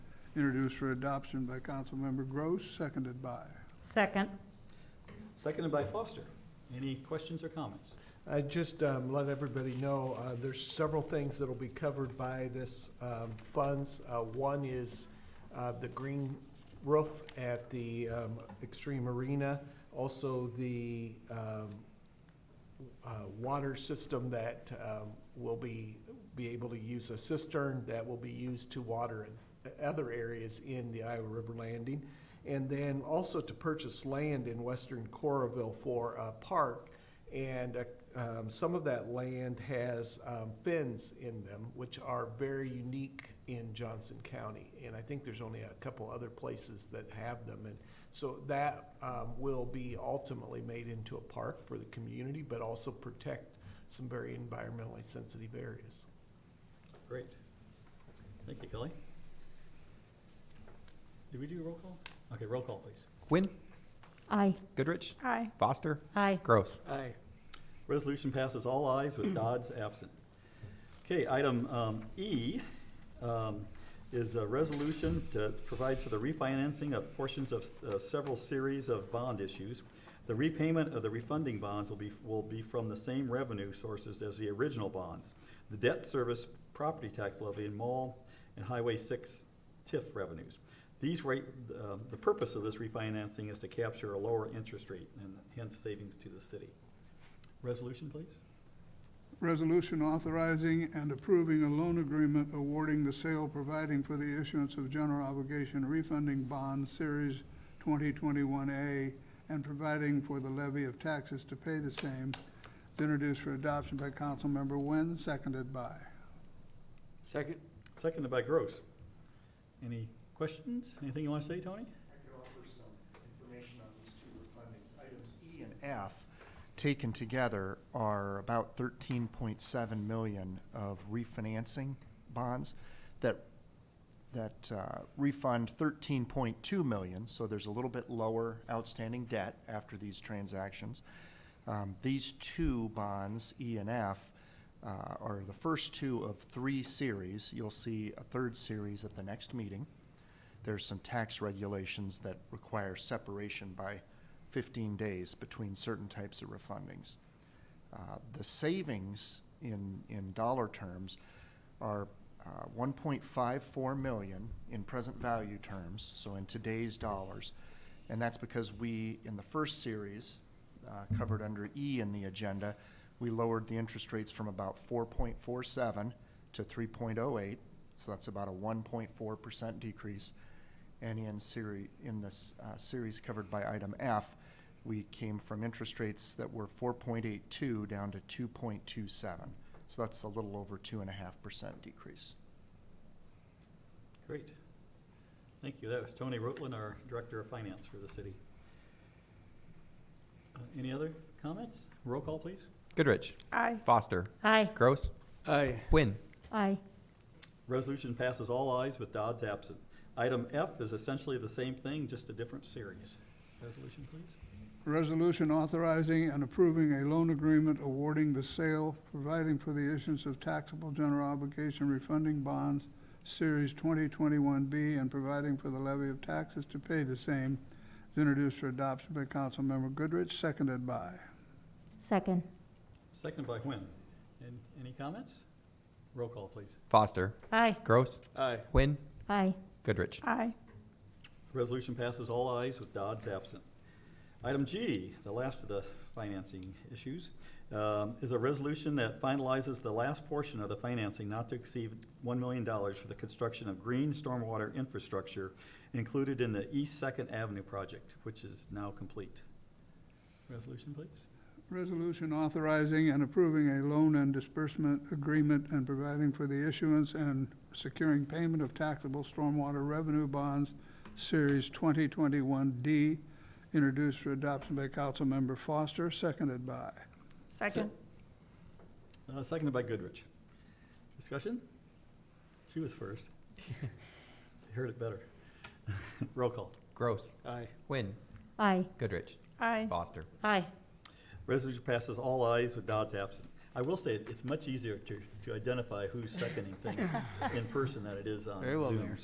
introduced for adoption by Councilmember Gross, seconded by. Second. Seconded by Foster. Any questions or comments? I just um, let everybody know, uh, there's several things that'll be covered by this um, funds. Uh, One is uh, the green roof at the um, Extreme Arena, also the um, uh, water system that um, will be, be able to use a cistern that will be used to water in uh, other areas in the Iowa River Landing. And then also to purchase land in western Coraville for a park. And uh, um, some of that land has um, fins in them, which are very unique in Johnson County. And I think there's only a couple other places that have them. And so that um, will be ultimately made into a park for the community, but also protect some very environmentally sensitive areas. Great. Thank you, Kelly. Did we do a roll call? Okay, roll call, please. Quinn, Aye. Goodrich, Aye. Foster, Aye. Gross. Aye. Resolution passes all ayes with Dodds absent. Okay, item um, E um, is a resolution that provides for the refinancing of portions of uh, several series of bond issues. The repayment of the refunding bonds will be, will be from the same revenue sources as the original bonds. The debt service, property tax levy, and mall and Highway 6 TIF revenues. These rate, uh, the purpose of this refinancing is to capture a lower interest rate and hence savings to the city. Resolution, please. Resolution authorizing and approving a loan agreement awarding the sale providing for the issuance of general obligation refunding bond series 2021A and providing for the levy of taxes to pay the same, It's introduced for adoption by Councilmember Nguyen, seconded by. Second? Seconded by Gross. Any questions? Anything you want to say, Tony? I could offer some information on these two refundings. Items E and F, taken together, are about thirteen point seven million of refinancing bonds that, that uh, refund thirteen point two million, so there's a little bit lower outstanding debt after these transactions. Um, These two bonds, E and F, uh, are the first two of three series. You'll see a third series at the next meeting there's some tax regulations that require separation by 15 days between certain types of refundings. Uh, The savings in, in dollar terms are uh, 1.54 million in present value terms, so in today's dollars. And that's because we, in the first series, uh, covered under E in the agenda, we lowered the interest rates from about 4.47 to 3.08, so that's about a 1.4% decrease. And in series, in this uh, series covered by item F, we came from interest rates that were 4.82 down to 2.27. So that's a little over 2.5% decrease. Great. Thank you. That was Tony Rutland, our Director of Finance for the city. Uh, Any other comments? Roll call, please. Goodrich. Aye. Foster, Aye. Gross. Aye. Quinn, Aye. Resolution passes all ayes with Dodds absent. Item F is essentially the same thing, just a different series. Resolution, please. Resolution authorizing and approving a loan agreement awarding the sale, providing for the issuance of taxable general obligation refunding bonds, Series 2021B, and providing for the levy of taxes to pay the same, is introduced for adoption by Councilmember Goodrich, seconded by. Second. Seconded by Nguyen. And any comments? Roll call, please. Foster, Aye. Gross. Aye. Quinn, Aye. Goodrich. Aye. Resolution passes all ayes with Dodds absent. Item G, the last of the financing issues, um, is a resolution that finalizes the last portion of the financing not to exceed $1 million for the construction of green stormwater infrastructure included in the East Second Avenue project, which is now complete. Resolution, please. Resolution authorizing and approving a loan and disbursement agreement and providing for the issuance and securing payment of taxable stormwater revenue bonds, Series 2021D, introduced for adoption by Councilmember Foster, seconded by. Second. Uh, Seconded by Goodrich. Discussion? She was first. You Heard it better. Roll call. Gross. Aye. Quinn, Aye. Goodrich. Aye. Foster. Aye. Resolution passes all ayes with Dodds absent. I will say, it- it's much easier to, to identify who's seconding things in person than it is on Very well, Zoom. Mayor.